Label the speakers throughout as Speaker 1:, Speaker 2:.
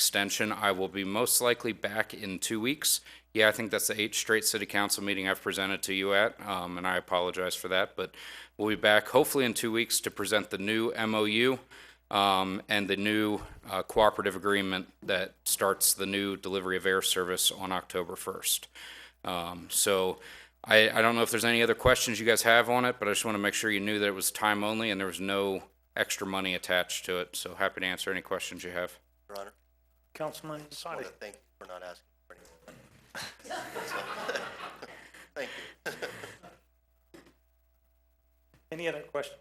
Speaker 1: extension. I will be most likely back in two weeks. Yeah, I think that's the eighth straight city council meeting I've presented to you at, um, and I apologize for that, but we'll be back hopefully in two weeks to present the new MOU um, and the new uh, cooperative agreement that starts the new delivery of air service on October 1st. Um, so I, I don't know if there's any other questions you guys have on it, but I just want to make sure you knew that it was time only and there was no extra money attached to it. So happy to answer any questions you have.
Speaker 2: Your Honor,
Speaker 3: Councilman
Speaker 2: I
Speaker 3: Sadi.
Speaker 2: want to thank you for not asking for any more money. Thank you.
Speaker 3: Any other questions?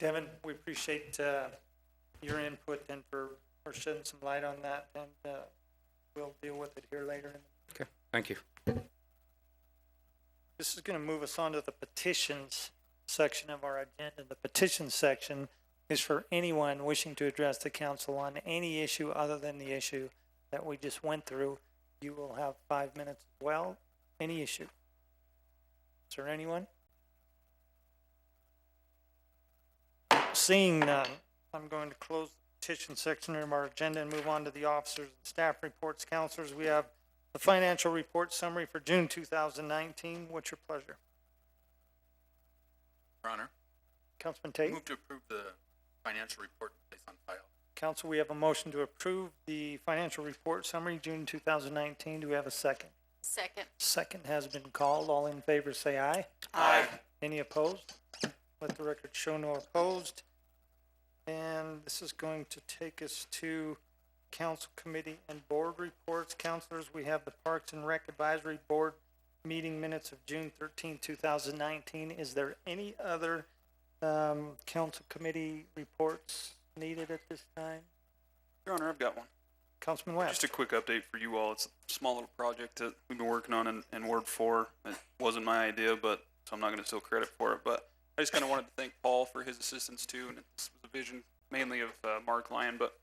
Speaker 3: Devin, we appreciate uh, your input and for for shedding some light on that, and uh, we'll deal with it here later.
Speaker 1: Okay, thank you.
Speaker 3: This is going to move us on to the petitions section of our agenda. The petitions section is for anyone wishing to address the council on any issue other than the issue that we just went through. You will have five minutes as well, any issue. Is there anyone? Seeing none, I'm going to close the petition section of our agenda and move on to the officers and staff reports. Counselors, we have the financial report summary for June two thousand nineteen. What's your pleasure?
Speaker 4: Your Honor,
Speaker 3: Councilman Tate?
Speaker 4: move to approve the financial report placed on file.
Speaker 3: Council, we have a motion to approve the financial report summary, June two thousand nineteen. Do we have a second?
Speaker 5: Second.
Speaker 3: Second has been called. All in favor, say aye.
Speaker 5: Aye.
Speaker 3: Any opposed? Let the record show no opposed. And this is going to take us to council committee and board reports. Counselors, we have the Parks and Rec Advisory Board meeting minutes of June thirteenth, two thousand nineteen. Is there any other, um, council committee reports needed at this time?
Speaker 6: Your Honor, I've got one.
Speaker 3: Councilman West?
Speaker 6: Just a quick update for you all. It's a small little project that we've been working on in, in Ward Four. It wasn't my idea, but, so I'm not gonna steal credit for it, but I just kinda wanted to thank Paul for his assistance too, and it's the vision mainly of, uh, Mark Lyon, but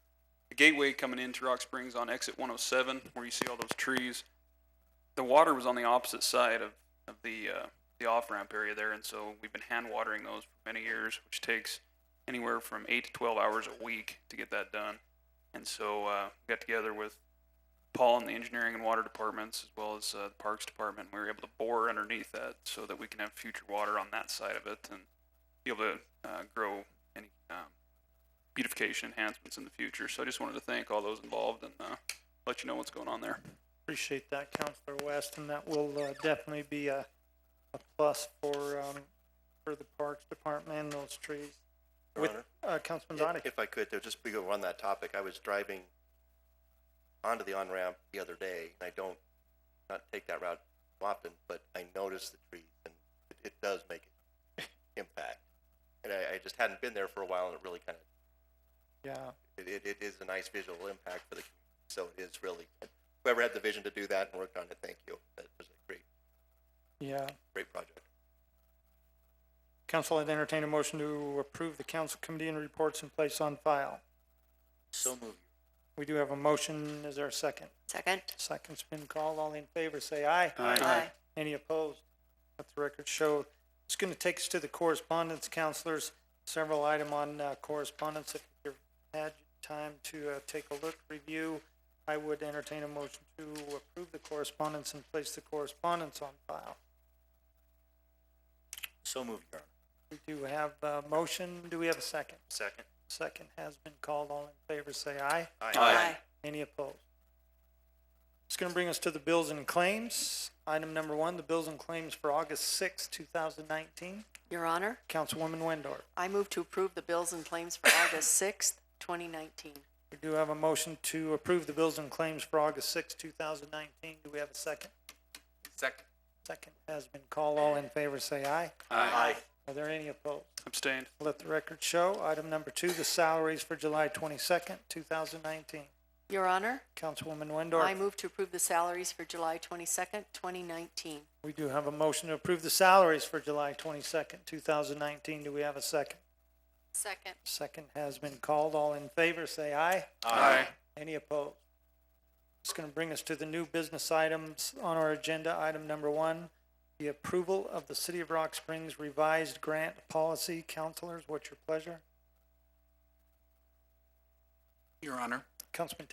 Speaker 6: the gateway coming into Rock Springs on exit one oh seven, where you see all those trees, the water was on the opposite side of, of the, uh, the off-ramp area there, and so we've been hand watering those for many years, which takes anywhere from eight to twelve hours a week to get that done. And so uh, we got together with Paul and the engineering and water departments, as well as uh, the parks department. and We were able to bore underneath that so that we can have future water on that side of it and be able to uh, grow any um, beautification enhancements in the future. So I just wanted to thank all those involved and uh, let you know what's going on there.
Speaker 3: Appreciate that, Counselor West, and that will uh, definitely be a, a plus for, um, for the Parks Department and those trees.
Speaker 2: Your
Speaker 3: With-
Speaker 2: Honor,
Speaker 3: Uh, Councilman
Speaker 2: i-
Speaker 3: Dottie,
Speaker 2: if I could, though, just go on that topic, I was driving onto the on-ramp the other day, and I don't, not take that route often, but I noticed the trees, and it, it does make an impact. And I, I just hadn't been there for a while, and it really kind of,
Speaker 3: yeah,
Speaker 2: it, it, it is a nice visual impact for the community, so it is really, whoever had the vision to do that and worked on it, thank you. That was a great,
Speaker 3: yeah.
Speaker 2: great project.
Speaker 3: Council, I'd entertain a motion to approve the council committee and reports in place on file.
Speaker 2: So moved.
Speaker 3: We do have a motion. Is there a second?
Speaker 5: Second.
Speaker 3: Second's been called. All in favor, say aye.
Speaker 5: Aye.
Speaker 3: Any opposed? Let the record show. It's going to take us to the correspondence, counselors. Several item on uh, correspondence. If you've had time to uh, take a look, review, I would entertain a motion to approve the correspondence and place the correspondence on file.
Speaker 2: So moved, Your Honor.
Speaker 3: We do have a motion. Do we have a second?
Speaker 2: Second.
Speaker 3: Second has been called. All in favor, say aye.
Speaker 5: Aye.
Speaker 3: Any opposed? It's gonna bring us to the bills and claims. Item number one, the bills and claims for August sixth, two thousand nineteen.
Speaker 5: Your Honor,
Speaker 3: Councilwoman Wendorf,
Speaker 5: I move to approve the bills and claims for August sixth, twenty nineteen.
Speaker 3: we do have a motion to approve the bills and claims for August sixth, two thousand nineteen. Do we have a second?
Speaker 4: Second.
Speaker 3: Second has been called. All in favor, say aye.
Speaker 4: Aye.
Speaker 3: Are there any opposed?
Speaker 6: Abstained.
Speaker 3: Let the record show. Item number two, the salaries for July twenty-second, two thousand nineteen.
Speaker 5: Your Honor,
Speaker 3: Councilwoman
Speaker 5: I
Speaker 3: Wendorf,
Speaker 5: move to approve the salaries for July twenty-second, twenty nineteen.
Speaker 3: we do have a motion to approve the salaries for July twenty-second, two thousand nineteen. Do we have a second?
Speaker 5: Second.
Speaker 3: Second has been called. All in favor, say aye.
Speaker 4: Aye.
Speaker 3: Any opposed? It's going to bring us to the new business items on our agenda. Item number one, the approval of the City of Rock Springs revised grant policy. Counselors, what's your pleasure?
Speaker 4: Your Honor,
Speaker 3: Councilman